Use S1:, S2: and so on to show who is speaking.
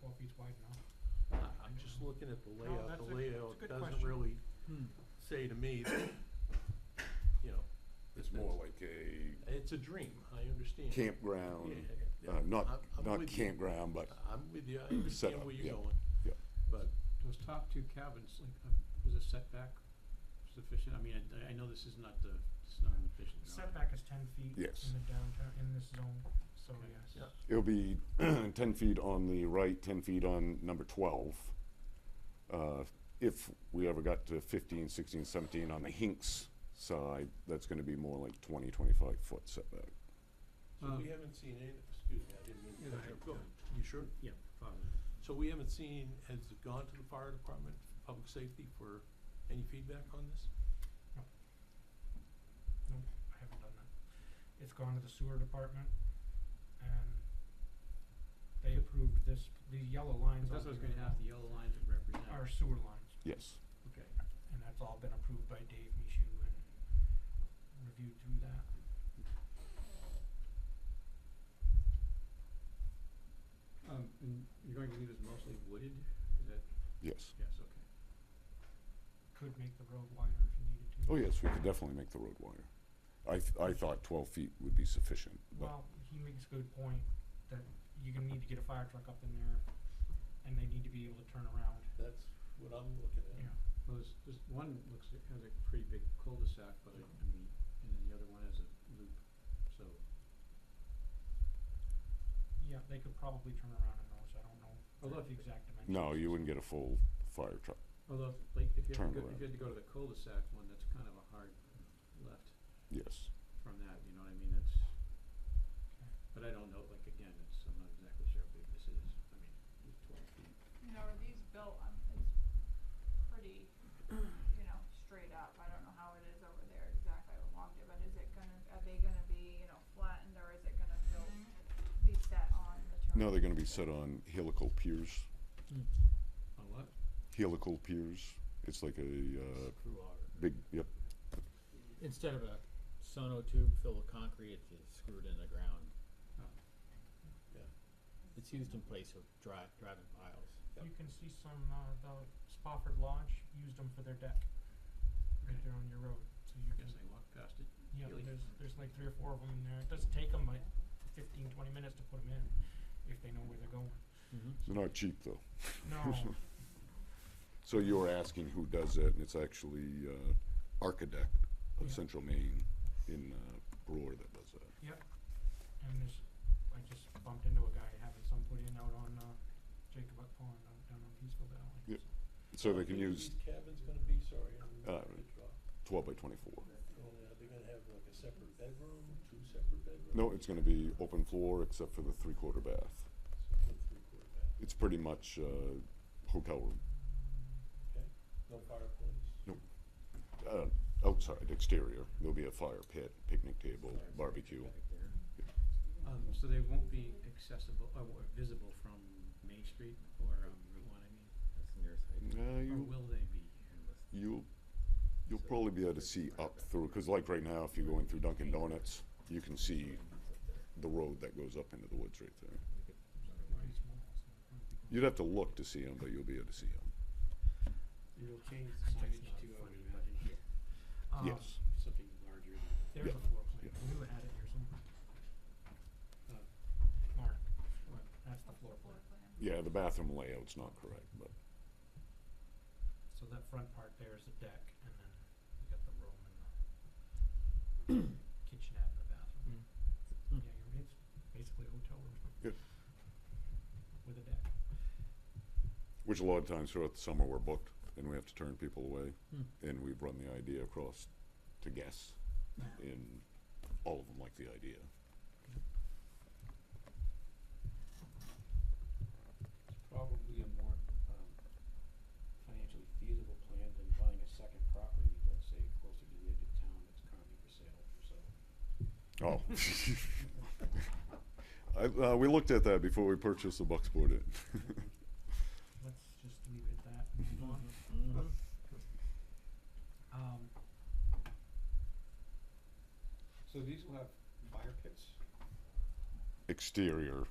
S1: four feet wide now.
S2: I- I'm just looking at the layout,
S1: that's a-
S2: the
S1: that's a
S2: layout
S1: good
S2: doesn't
S1: question.
S2: really say to me that, you know,
S3: It's more like a
S2: it's a dream, I understand.
S3: campground,
S2: Yeah,
S3: uh, not,
S2: I'm- I'm
S3: not
S2: with you.
S3: campground, but,
S2: I'm with you, I understand
S3: Setup,
S2: where
S3: yeah,
S2: you're going.
S3: yeah.
S2: But,
S4: Those top two cabins, like, uh, was a setback sufficient? I mean, I, I know this is not the, it's not an efficient.
S1: The Setback is ten feet
S3: Yes.
S1: in the downtown, in this zone, so
S4: Okay.
S1: yes.
S2: Yeah.
S3: it'll be ten feet on the right, ten feet on number twelve. Uh, If we ever got to 15, 16, 17 on the Hinks side, that's gonna be more like 20, 25 foot setback.
S2: so
S4: Um,
S2: we haven't seen any, excuse me, I didn't mean to
S4: Yeah,
S2: cut
S4: I-
S2: you off. Uh, Go ahead. You sure?
S4: Yeah, probably.
S2: So we haven't seen, has it gone to the fire department, public safety for any feedback on this?
S1: No, I haven't done that. It's gone to the sewer department and they approved this, the yellow lines on
S4: That's what I was
S1: here
S4: gonna ask, the yellow lines would represent,
S1: Are sewer lines,
S3: Yes,
S4: okay.
S1: and that's all been approved by Dave Michu and reviewed through that.
S4: Um, and you're going to leave this mostly wooded, is that,
S3: yes.
S4: yes, okay.
S1: Could make the road wider if you needed to.
S3: Oh, yes, we could definitely make the road wider. I, th- I thought twelve feet would be sufficient, but,
S1: Well, he makes a good point that you're gonna need to get a fire truck up in there and they need to be able to turn around,
S2: That's what I'm looking
S1: you
S2: at.
S1: know.
S4: Well, this, this one looks, it has a pretty big cul-de-sac, but I, I mean, and then the other one has a loop, so,
S1: Yeah, they could probably turn around in those, I don't know
S4: Although if
S1: the
S4: you-
S1: exact dimensions.
S3: no, you wouldn't get a full fire truck.
S4: although, if- like, if you had to go,
S3: Turnaround.
S4: if you had to go to the cul-de-sac one, that's kind of a hard left
S3: Yes,
S4: from that, you know what I mean, that's,
S1: Okay.
S4: but I don't know, like, again, it's, I'm not exactly sure how big this is, I mean, it's twelve feet.
S5: You know, are these built, um, it's pretty, you know, straight up, I don't know how it is over there exactly, I haven't walked it, but is it gonna, are they gonna be, you know, flattened, or is it gonna built, be set on the terrain?
S3: no, they're gonna be set on helical piers,
S4: On what?
S3: helical piers, it's like a, uh,
S4: Screw auger.
S3: big, yep,
S6: Instead of a sonotube tube filled with concrete, it's just screwed in the ground.
S4: Oh.
S2: Yeah.
S6: It's used in place of dri- driving piles.
S2: Yep.
S1: You can see some, uh, the Spofford Lodge used them for their deck, right there on your road, so you
S4: I
S1: can,
S4: guess I walked past it.
S1: yeah,
S4: Really?
S1: there's, there's like three or four of them in there, it doesn't take them like fifteen, twenty minutes to put them in, if they know where they're going.
S3: they're not cheap though.
S1: No,
S3: So you were asking who does it, and it's actually, uh, Architect of
S1: Yeah.
S3: Central Maine in, uh, Brewer that does that.
S1: and there's, I just bumped into a guy having some put in out on, uh, Jacobuck Pond, out down on Peaceful Valley.
S3: Yep.
S1: so.
S3: So they
S2: How
S3: can
S2: big are
S3: use
S2: These cabins gonna be, sorry, I'm
S3: Uh,
S2: gonna draw.
S3: twelve by twenty-four.
S2: Are they gonna have like a separate bedroom, two separate bedrooms?
S3: No, it's gonna be open floor except for the three-quarter bath.
S2: Separate three-quarter bath,
S3: It's pretty much, uh, hotel room,
S2: no fireplace.
S3: uh, outside, exterior. There'll be a fire pit, picnic table,
S6: Fire's
S3: barbecue.
S6: back there.
S4: Um, so they won't be accessible, or, or visible from Main Street or, um, Route One, I mean,
S6: That's the nearest I can-
S3: Uh,
S4: or
S3: you,
S4: will they be?
S3: you'll, you'll
S6: So
S3: probably be able to
S6: there's
S3: see
S6: fire
S3: up
S6: back
S3: through,
S6: there.
S3: cause like right now, if you're going through Dunkin' Donuts, you can see the road that goes up into the woods right there.
S1: Pretty small, so it'll probably be
S3: You'd have to look to see them, but you'll be able to see them.
S4: And you'll change
S1: the signage to,
S2: uh,
S1: I would imagine,
S3: Uh-huh.
S1: going- Um,
S3: Yes.
S4: something larger.
S1: There's
S3: Yeah.
S1: a floor plan,
S3: Yeah.
S1: we would have had it here somewhere.
S4: Uh,
S1: Mark, that's the
S5: What's
S1: floor plan,
S5: plan?
S3: Yeah, the bathroom layout's not correct, but
S1: so that front part there is the deck, and then you got the room and the kitchenette and the bathroom.
S6: Mm.
S1: Yeah, you're, it's basically a hotel room.
S3: Good.
S1: With a deck.
S3: Which a lot of times throughout the summer, we're booked and we have to turn people away.
S6: Hmm.
S3: And we've run the idea across to guests and all of them like the idea.
S7: It's probably a more, um, financially feasible plan than buying a second property, let's say closer to the edge of town that's currently for sale, so.
S3: Oh. I, uh, we looked at that before we purchased the Bucksport Inn.
S1: Let's just leave it at that and move on.
S6: Mhm.
S1: Um,
S7: So these will have fire pits?
S3: Exterior